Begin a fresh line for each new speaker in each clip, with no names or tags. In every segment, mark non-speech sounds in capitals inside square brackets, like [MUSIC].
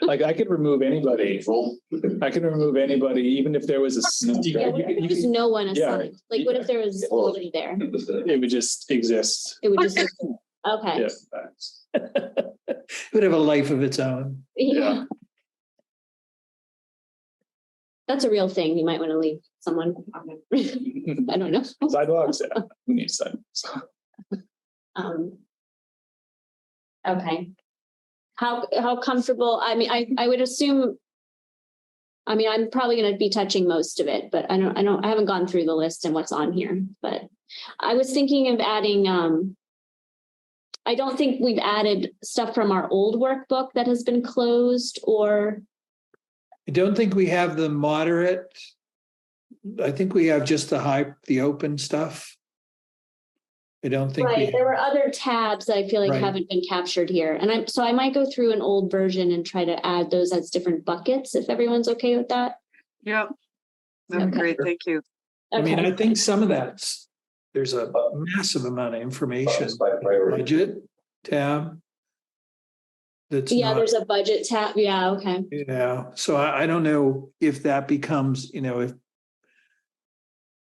Like I could remove anybody. I can remove anybody, even if there was a. sneak- you
Yeah, what
could-
if
you
there was
could-
no one
yeah,
assigned? Like, what if there was
Well-
nobody there?
It would just exist.
It
[LAUGHS]
would just, okay.
Yeah.
It would have a life of its own.
Yeah.
[LAUGHS] That's a real thing. You might want to leave someone. [LAUGHS] I don't know.
[LAUGHS] Sidewalks, yeah, we need sidewalks.
Um. Okay. How, how comfortable, I mean, I, I would assume. I mean, I'm probably gonna be touching most of it, but I don't, I don't, I haven't gone through the list and what's on here, but I was thinking of adding, um. I don't think we've added stuff from our old workbook that has been closed or,
I don't think we have the moderate. I think we have just the high, the open stuff. I don't think
right,
we,
there were other tabs that I feel like
Right.
haven't been captured here. And I'm, so I might go through an old version and try to add those as different buckets, if everyone's okay with that.
Yeah. That'd be
Okay.
great. Thank you.
I mean,
Okay.
I think some of that's, there's a massive amount of information.
By priority.
Budget tab. That's
Yeah,
not,
there's a budget tab. Yeah, okay.
you know, so I, I don't know if that becomes, you know, if.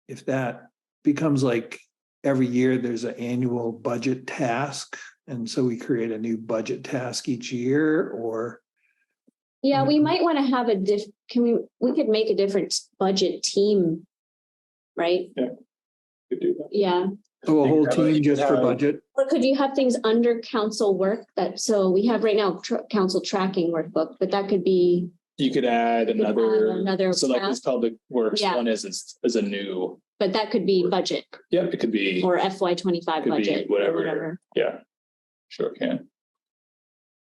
If that becomes like every year, there's an annual budget task. And so we create a new budget task each year or.
Yeah, we
Mhm.
might want to have a diff, can we, we could make a different budget team. Right?
Could do that.
Yeah.
Oh, a
think
whole
that would
team just for
have-
budget.
Or could you have things under council work that, so we have right now tr- council tracking workbook, but that could be,
You could add
could add another
another, so like
tab.
this public works,
Yeah.
one is, is- is a new,
but that could be budget
yep, it could be,
or FY twenty-five
Could be
budget. or
whatever. yeah. Sure can.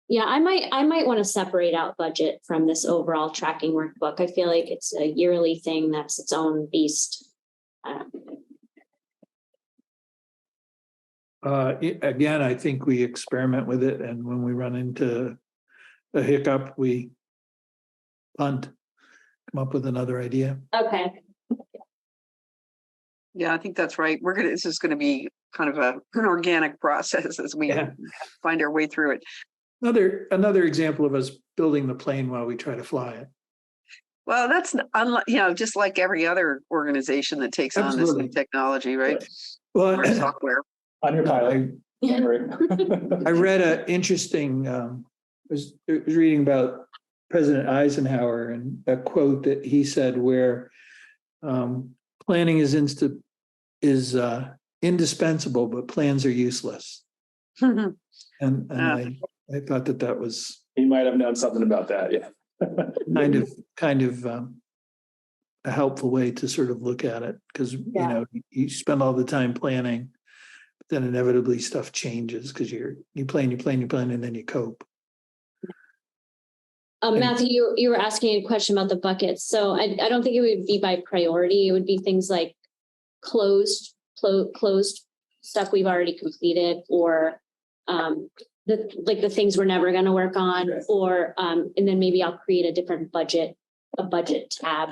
Yeah, I might, I might want to separate out budget from this overall tracking workbook. I feel like it's a yearly thing that's its own beast. Uh,
Uh, i- again, I think we experiment with it and when we run into a hiccup, we punt, come up with another idea.
Okay.
Yeah, I think that's right. We're gonna, this is gonna be kind of a, an organic [LAUGHS] process as we
Yeah.
find our way through it.
Another, another example of us building the plane while we try to fly it.
Well, that's unlike, you know, just like every other organization that takes on this
Absolutely.
new technology, right? Or
[CLEARS THROAT] Well,
software. [LAUGHS]
On your
I,
don't [LAUGHS] worry.
I read an interesting, um, was, was reading about President Eisenhower and a quote that he said where um, planning is insta, is uh, indispensable, but plans are useless. And, and
Ah.
I, I thought that that was
He might have known something about that, yeah.
kind of, kind of um, a helpful way to sort of look at it, because, you
Yeah.
know, you spend all the time planning. but Then inevitably stuff changes because you're, you plan, you plan, you plan, and then you cope.
Um,
And-
Matthew, you, you were asking a question about the buckets, so I, I don't think it would be by priority, it would be things like closed, clo- closed stuff we've already completed, or um, the, like the things we're never gonna work on,
Right.
or, um, and then maybe I'll create a different budget, a budget tab.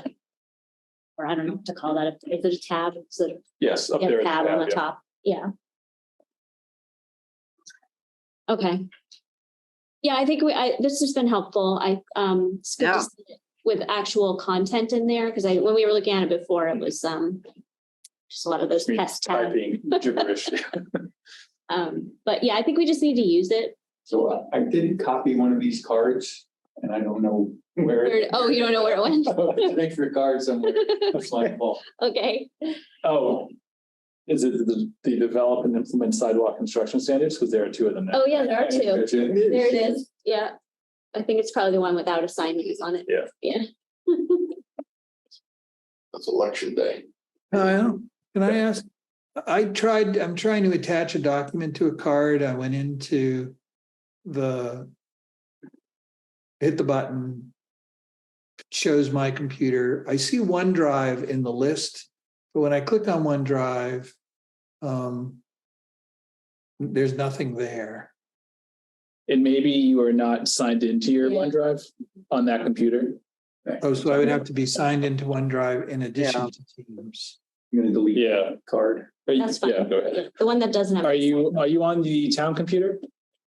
Or I don't know what to call that, if there's a tab, it's a
Yes, up
yeah,
there. is
tab on the
yeah.
top, yeah. Okay. Yeah, I think we, I, this has been helpful. I, um, it's good to
Yeah.
see it with actual content in there, because I, when we were looking at it before, it was, um, just a lot of those
Me
test tabs.
Typing
[LAUGHS]
gibberish.
Um, but yeah, I think we just need to use it.
So uh, I I did copy one of these cards and I don't know where. it-
Where- Oh, you don't know where
[LAUGHS]
it went?
[LAUGHS] There's an extra card
[LAUGHS]
somewhere. That's my fault.
Okay,
Oh. Is it the, the develop and implement sidewalk construction standards? Because there are two of them now.
oh yeah, there are two.
That's it.
There it is, yeah. I think it's probably the one without assignments on it.
Yeah.
Yeah. [LAUGHS]
That's election day.
Uh, can I ask? I tried, I'm trying to attach a document to a card. I went into the hit the button, shows my computer. I see OneDrive in the list, but when I click on OneDrive, um, there's nothing there.
And maybe you are not signed into your
Yeah.
OneDrive on that computer.
Oh, so I would have to be signed into OneDrive in
Yeah.
addition to Teams.
I'm gonna delete the
Yeah.
card.
Are you-
That's fine.
Yeah, go ahead.
The one that doesn't have.
Are you, are you on the town computer?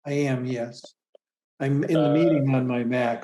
I am, yes. I'm in the
Uh,
meeting on my Mac,